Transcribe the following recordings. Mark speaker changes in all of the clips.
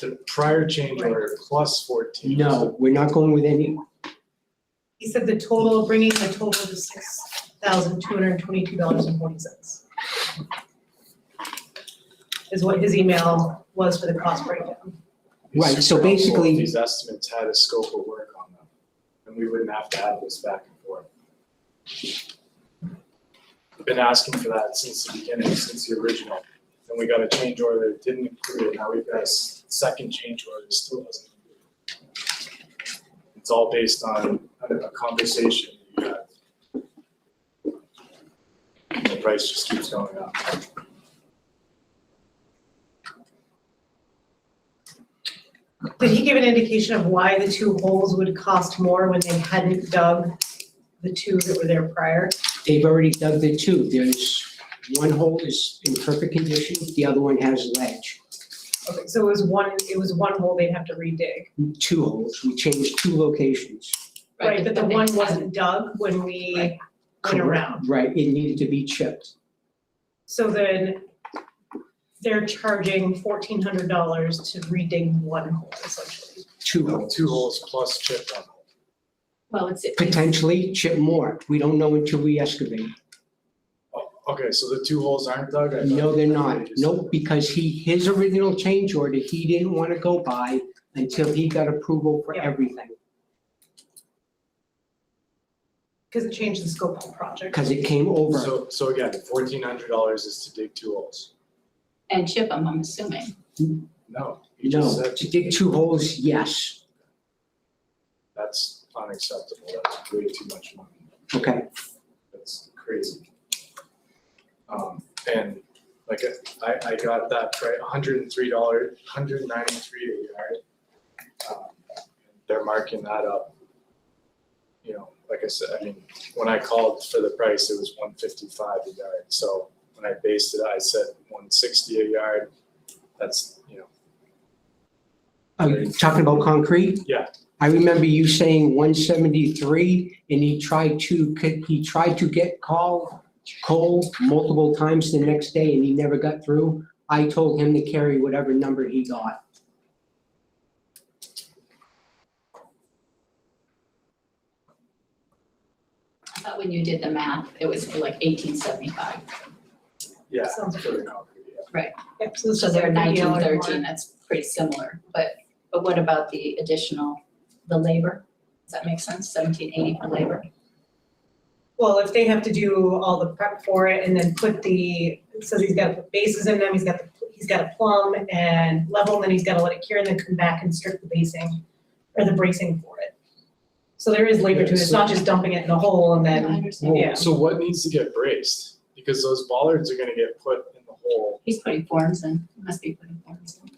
Speaker 1: the prior change order plus fourteen.
Speaker 2: No, we're not going with any,
Speaker 3: He said the total, bringing the total to six thousand two hundred and twenty-two dollars and forty cents. Is what his email was for the cost breakdown.
Speaker 1: It's
Speaker 2: Right, so
Speaker 1: super helpful if
Speaker 2: basically-
Speaker 1: These estimates had a scope of work on them, and we wouldn't have to have this back and forth. I've Been asking for that since the beginning, since the original, and we got a change order that didn't include it, now we've got a s- second change order that still doesn't. include it. It's all based on a a conversation you had. And The price just keeps going up.
Speaker 3: Did he give an indication of why the two holes would cost more when they hadn't dug the two that were there prior?
Speaker 2: they've already dug the two. There's, one hole is in perfect condition, the other one has ledge.
Speaker 3: Okay, so it was one, it was one hole they'd have to redig.
Speaker 2: Two holes, we changed two locations.
Speaker 3: Right, but the one
Speaker 4: they-
Speaker 3: wasn't dug when we
Speaker 4: Right.
Speaker 3: went around.
Speaker 2: Right, it needed to be chipped.
Speaker 3: So then they're charging fourteen hundred dollars to redig one hole essentially.
Speaker 2: Two holes.
Speaker 1: Oh, Two holes plus chip on hole.
Speaker 4: Well, it's, it's-
Speaker 2: Potentially chip more. We don't know until we excavate.
Speaker 1: Oh, Okay, so the two holes aren't dug? I thought-
Speaker 2: No, they're not. Nope, because he, his original change order, he didn't want to go by until he got approval for
Speaker 3: Yeah.
Speaker 2: everything.
Speaker 3: Because it changed the scope of the project.
Speaker 2: Because it came over.
Speaker 1: So, so again, fourteen hundred dollars is to dig two holes?
Speaker 4: and chip them, I'm assuming.
Speaker 1: No, you just
Speaker 2: No,
Speaker 1: said
Speaker 2: to dig two holes, yes.
Speaker 1: that's unacceptable, that's way too much money,
Speaker 2: Okay,
Speaker 1: that's crazy. Um, and like, I, I got that for hundred and three dollars, hundred and ninety-three a yard. Um, They're marking that up. You know, like I said, I mean, when I called for the price, it was one fifty-five a yard, so when I based it, I said one sixty a yard. That's, you know,
Speaker 2: are you talking about concrete?
Speaker 1: Yeah.
Speaker 2: I remember you saying one seventy-three and he tried to, he tried to get call, Cole multiple times the next day and he never got through. I told him to carry whatever number he got.
Speaker 4: I thought when you did the math, it was for like eighteen seventy-five.
Speaker 1: Yeah,
Speaker 3: Sounds
Speaker 1: for the concrete, yeah.
Speaker 3: Yep, so this
Speaker 4: So
Speaker 3: is
Speaker 4: they're
Speaker 3: like a
Speaker 4: nineteen
Speaker 3: yellow
Speaker 4: thirteen,
Speaker 3: one.
Speaker 4: that's pretty similar, but, but what about the additional, the labor? Does that make sense? Seventeen eighty for labor?
Speaker 3: Well, if they have to do all the prep for it and then put the, it says he's got to put bases in them, he's got the, he's got to plumb and level, and then he's got to let it cure and then come back and strip the basing or the bracing for it. So there is labor to it, it's not just dumping it in a hole and
Speaker 4: I
Speaker 3: then,
Speaker 4: understand.
Speaker 1: Well,
Speaker 3: Yeah.
Speaker 1: so what needs to get braced? Because those bollards are gonna get put in the hole.
Speaker 4: He's putting forms in, He must be putting forms in.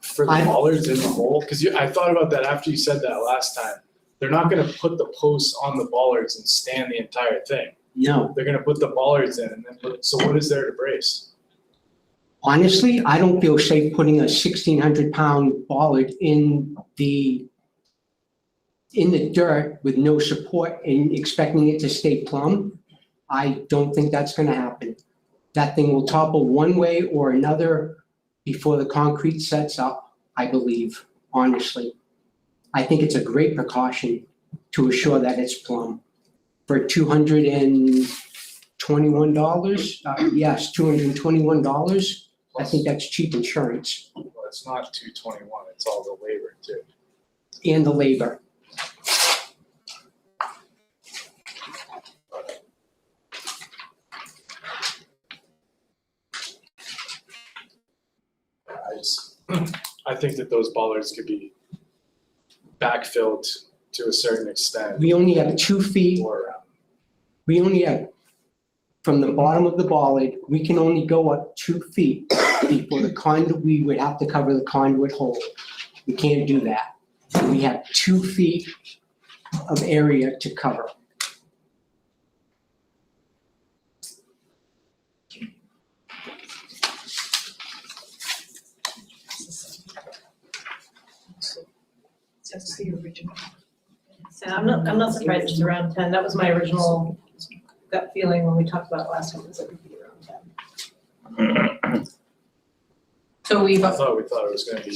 Speaker 1: For the
Speaker 2: I-
Speaker 1: bollards in the hole, cause you, I thought about that after you said that last time. They're not gonna put the posts on the bollards and stand the entire thing.
Speaker 2: No,
Speaker 1: They're gonna put the bollards in and then put, so what is there to brace?
Speaker 2: Honestly, I don't feel safe putting a sixteen hundred pound bollard in the in the dirt with no support and expecting it to stay plumb. I don't think that's gonna happen. That thing will topple one way or another before the concrete sets up, I believe, honestly. I think it's a great precaution to assure that it's plumb. For two hundred and twenty-one dollars, uh, yes, two hundred and twenty-one dollars. I think that's cheap insurance
Speaker 1: Well, it's not two twenty-one, it's all the labor too.
Speaker 2: and the labor.
Speaker 1: I just, I think that those bollards could be backfilled to a certain extent
Speaker 2: We only have two feet,
Speaker 1: or um, around.
Speaker 2: we only have, from the bottom of the bollard, we can only go up two feet before the conduit, we would have to cover the conduit hole. We can't do that. We have two feet of area to cover.
Speaker 4: That's the original.
Speaker 3: and I'm not, I'm not surprised it's around ten, that was my original gut feeling when we talked about it last time, it was like it'd be around ten.
Speaker 4: So we've,
Speaker 1: I thought we thought it was gonna be